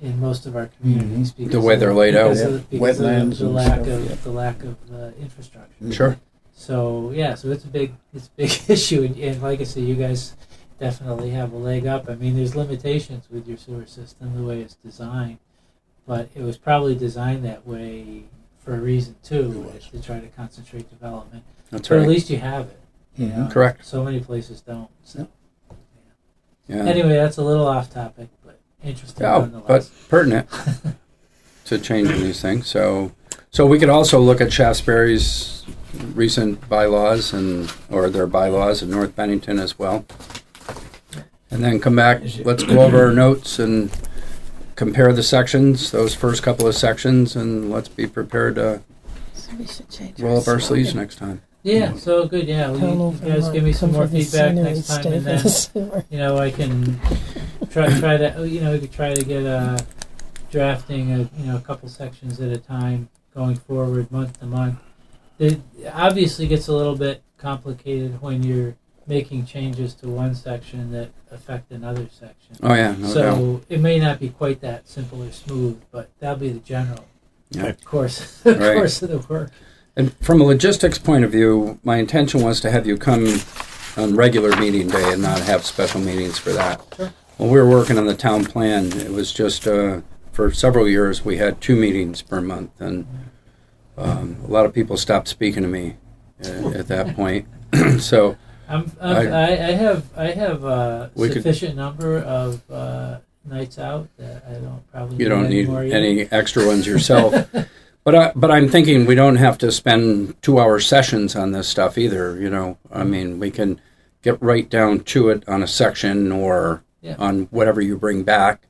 in most of our communities because The way of- they're laid because out. of- because of the- Mm-hmm. Wetlands the and lack stuff, of yeah. the lack of uh, infrastructure. Sure. So yeah, so it's a big it's a big issue, and, and like I say, you guys definitely have a leg up. I mean, there's limitations with your sewer system the way it's designed, but it was probably designed that way for a reason too, It was. to try to concentrate development. That's Or at right. least you have it. you Mhm. Mm-hmm. know? Correct. So many places don't. So Yeah. anyway, that's a little off topic, but interesting Oh, but nonetheless. pertinent to changing these things. So, so we could also look at Shaftesbury's recent bylaws and, or their bylaws in North Bennington as well. And then come back, let's go over our notes and compare the sections, those first couple of sections, and let's be prepared to So we should change. roll up our slogan. sleeves next time. yeah, so good. Yeah, we, Come you over guys give me and some come more for the feedback scenery, next time, stay and for the then. sewer. you know, I can try try to oh, you know we could try to get uh drafting a you know a couple sections at a time going forward month to month. It obviously gets a little bit complicated when you're making changes to one section that affect another section. Oh, yeah, no doubt. so it may not be quite that simple or smooth, but that'll be the general Yeah. course the Right. course of the work. And from a logistics point of view, my intention was to have you come on regular meeting day and not have special meetings for that. Sure. When we were working on the town plan, it was just, uh, for several years, we had two meetings per month, and um, a lot of people stopped speaking to me uh, at that point. So, I'm, I'm, I, I have I have a We could- sufficient number of uh, nights out that I don't probably you don't need anymore either. any extra ones yourself. But I, but I'm thinking we don't have to spend two hour sessions on this stuff either. You know, Mm-hmm. I mean, we can get right down to it on a section or Yeah. on whatever you bring back,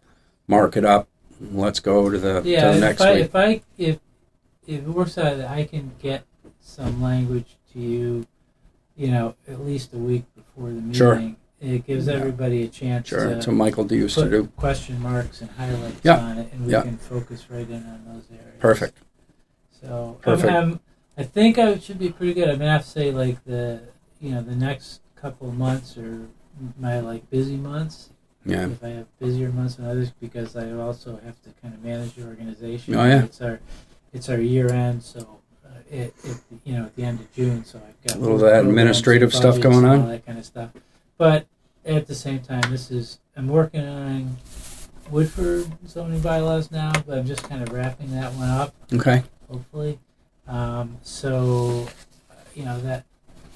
mark it up. and Let's go to the, yeah, to the if next I, week. if I if if it works out that I can get some language to you, you know, at least a week before the meeting, Sure. it gives Yeah. everybody a chance Sure, to that's what Michael D used to put do. question marks and highlights Yeah. on it, and we Yeah. can focus right in on those areas. Perfect. So I'm- Perfect. I'm- i think I should be pretty good. I'm gonna have to say like the you know the next couple of months or my like busy months Yeah, if I have busier months than others because I also have to kind of manage the organization. Oh, yeah. It's our it's our year end, so uh, it, it you know at the end of June, so I've got A little of that programs and administrative stuff budgets going and on? all that kind of stuff. But at the same time, this is I'm working on Woodford zoning bylaws now, but I'm just kind of wrapping that one up okay. hopefully. Um, so, uh, you know, that,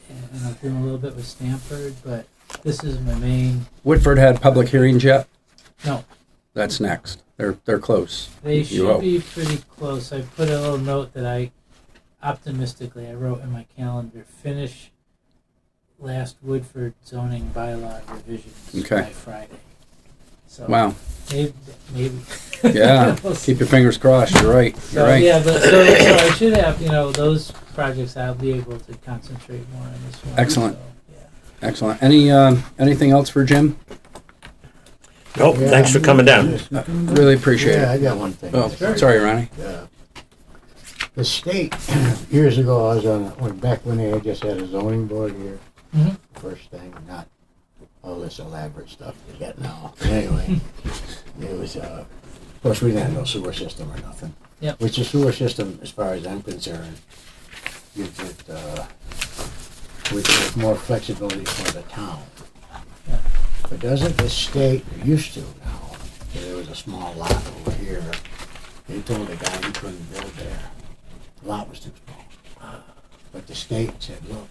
and and I'm doing a little bit with Stanford, but this is my main. Woodford had public hearings yet? No. That's next. They're, they're close. They You should hope. be pretty close. I put a little note that I optimistically I wrote in my calendar finish last Woodford zoning bylaw revisions Okay. by Friday. So Wow. maybe, maybe. Yeah. We'll see. Keep your fingers crossed. You're right. You're So right. yeah, but so, so I should have you know those projects. I'll be able to concentrate more on this one. Excellent. So, yeah. Excellent. Any, um, anything else for Jim? Nope, Oh, thanks for coming down. Really appreciate Yeah, it. I got one thing. Oh, sorry, Ronnie. Uh, The state, years ago, I was on, went back when they had just had a zoning board here. Mhm. First thing, not all this elaborate stuff they got now. Anyway, it was, uh, of course, we didn't have no sewer system or nothing. Yep. Which the sewer system, as far as I'm concerned, gives it, uh, with with more flexibility for the town. Yeah. But doesn't the state, used to now, there was a small lot over here, they told the guy he couldn't build there. Lot was too small. But the state said, look,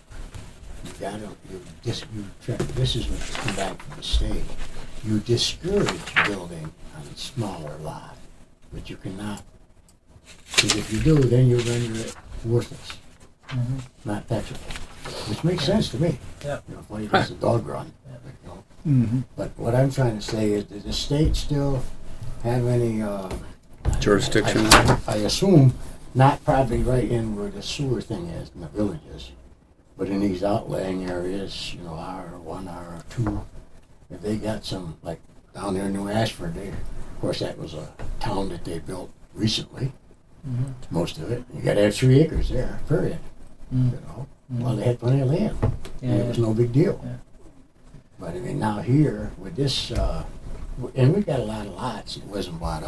you gotta, you, this, you, tra- this is what come back from the state. You discourage building on a smaller lot, but you cannot. Because if you do, then you render it worthless, Mhm. not taxable, which makes sense to me. Yeah. You know, why you does the dog run, Yeah. you know? Mm-hmm. But what I'm trying to say is, does the state still have any, uh? Jurisdiction. I- I assume not probably right in where the sewer thing is in the villages, but in these outlying areas, you know, R one, R two, if they got some, like down there in New Ashford, they, of course, that was a town that they built recently, Mhm. most of it. You gotta have three acres there, period, you Mm. know? Well, they had plenty of land. Yeah, And it was yeah. no big deal. Yeah. But I mean, now here with this, uh, w- and we got a lot of lots that wasn't bought up.